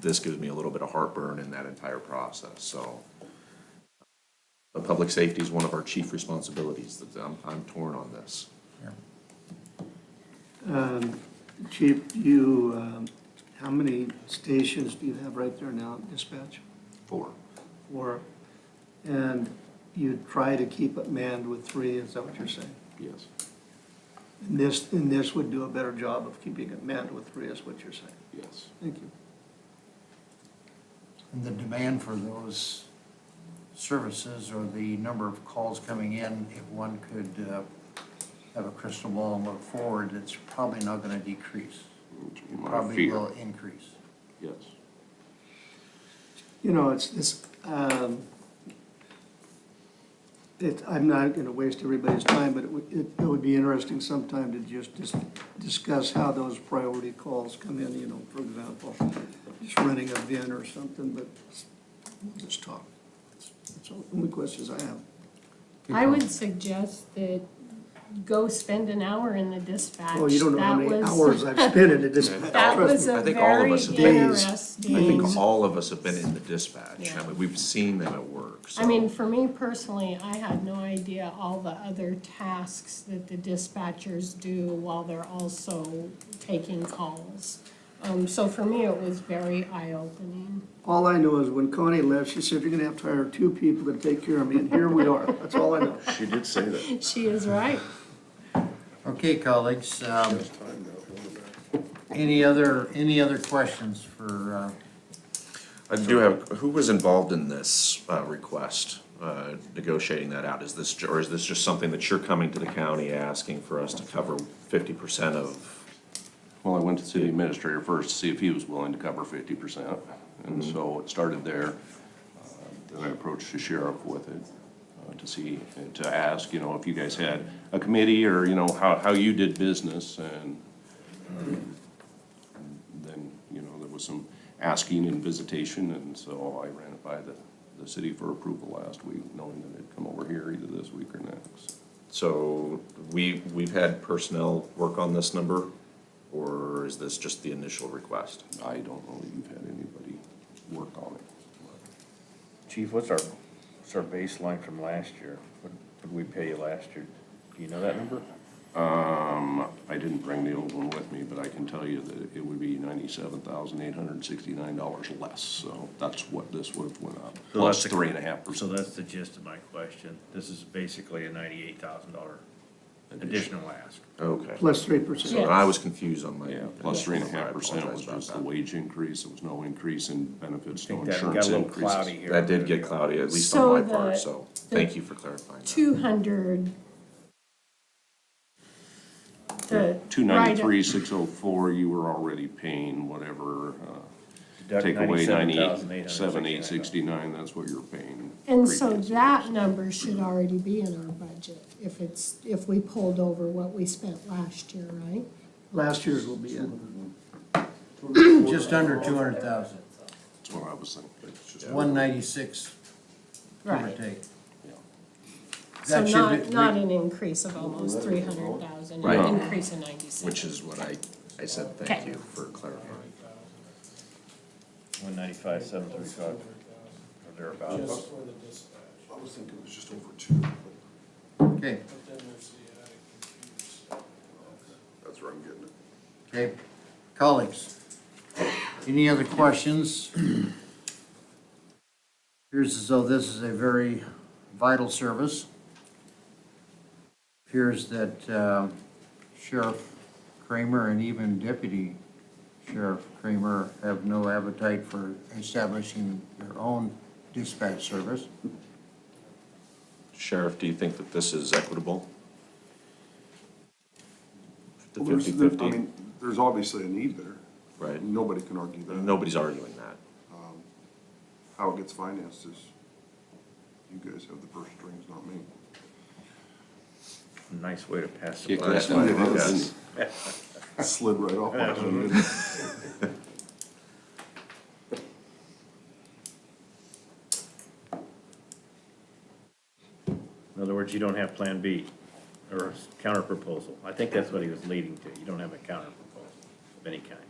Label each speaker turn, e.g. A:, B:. A: this gives me a little bit of heartburn in that entire process, so. But public safety is one of our chief responsibilities, that I'm, I'm torn on this.
B: Chief, you, um, how many stations do you have right there now, dispatch?
A: Four.
B: Four. And you try to keep it manned with three, is that what you're saying?
A: Yes.
B: And this, and this would do a better job of keeping it manned with three, is what you're saying?
A: Yes.
B: Thank you.
C: And the demand for those services or the number of calls coming in, if one could uh, have a crystal ball and look forward, it's probably not going to decrease. Probably will increase.
A: yes.
B: You know, it's, it's, um, it, I'm not gonna waste everybody's time, but it would, it it would be interesting sometime to just, just discuss how those priority calls come in, you know, for example, just renting a bin or something, but we'll just talk. That's all, only questions I have.
D: I would suggest that go spend an hour in the dispatch.
B: Oh, you don't know how
D: That
B: many
D: was-
B: hours I've spent in this.
D: That was
A: I
D: a
A: think all of
D: very
A: us have been-
B: Days.
D: interesting.
A: I think all of us have been in the dispatch, I
D: Yeah.
A: mean, we've seen them at work, so.
D: I mean, for me personally, I had no idea all the other tasks that the dispatchers do while they're also taking calls. Um, so for me, it was very eye-opening.
B: All I know is when Connie left, she said, you're gonna have to hire two people to take care of me, and here we are. That's all I know.
A: She did say that.
D: She is right.
C: Okay, colleagues, um, any other, any other questions for, uh,
A: I do have, who was involved in this, uh, request, uh, negotiating that out? Is this, ju- or is this just something that you're coming to the county asking for us to cover fifty percent of?
E: Well, I went to city administrator first to see if he was willing to cover fifty percent, and so it started there. Uh, Then I approached the sheriff with it uh, to see, to ask, you know, if you guys had a committee or, you know, how, how you did business and um, then, you know, there was some asking and visitation, and so I ran it by the, the city for approval last week, knowing that it'd come over here either this week or next.
A: So we, we've had personnel work on this number, or is this just the initial request?
E: I don't know that you've had anybody work on it.
F: Chief, what's our, what's our baseline from last year? What did we pay you last year? Do you know that number?
E: Um, I didn't bring the old one with me, but I can tell you that it would be ninety-seven thousand eight hundred and sixty-nine dollars less, so that's what this would have went up, plus three and a half
F: So
E: percent.
F: that's the gist of my question. This is basically a ninety-eight thousand dollar additional ask.
A: Okay.
B: Plus three percent.
A: So I was confused on my.
E: Yeah, plus three and a
A: I
E: half percent was
A: apologize about
E: just the
A: that.
E: wage increase, there was no increase in benefits,
F: I
E: no
F: think that got
E: insurance
F: a little cloudy
E: increases.
F: here.
A: That did get cloudy, at least
D: So
A: on my
D: the-
A: part, so thank
D: the
A: you for clarifying that.
D: Two hundred. The.
E: Two ninety-three, six oh four, you were already paying whatever, uh, take away ninety-seven, eight sixty-nine, that's what you're paying.
D: And so
E: previous.
D: that number should already be in our budget if it's, if we pulled over what we spent last year, right?
B: Last year's will be it.
C: just under 200,000?
E: That's what I was thinking. It's just-
C: 196, give or
D: Right.
C: take.
D: So
C: That should
D: not,
C: be-
D: not an increase of almost three hundred thousand,
A: Right.
D: an increase of ninety-six.
A: Which is what I, I said, thank
D: Okay.
A: you for clarifying.
F: One ninety-five, seven thirty-five, or thereabouts.
G: Just for the dispatch,
H: I was thinking it was just over two, but
C: Okay,
G: but then there's the attic computers.
H: that's where I'm getting it.
C: okay. Colleagues, any other questions? Appears as though this is a very vital service. Appears that um, Sheriff Kramer and even Deputy Sheriff Kramer have no appetite for establishing their own dispatch service.
A: Sheriff, do you think that this is equitable? The
H: Well, there's- there- I
A: 50-50,
H: mean, There's obviously a need there.
A: right?
H: Nobody can argue that.
A: Nobody's arguing that.
H: How it gets financed is, you guys have the first strings, not me.
F: Nice way to pass the
E: Kick
F: buck.
E: that one out,
A: Yes.
E: didn't it?
H: Slid right off. my tongue.
F: In other words, you don't have Plan B or a counterproposal. I think that's what he was leading to. You don't have a counterproposal of any kind.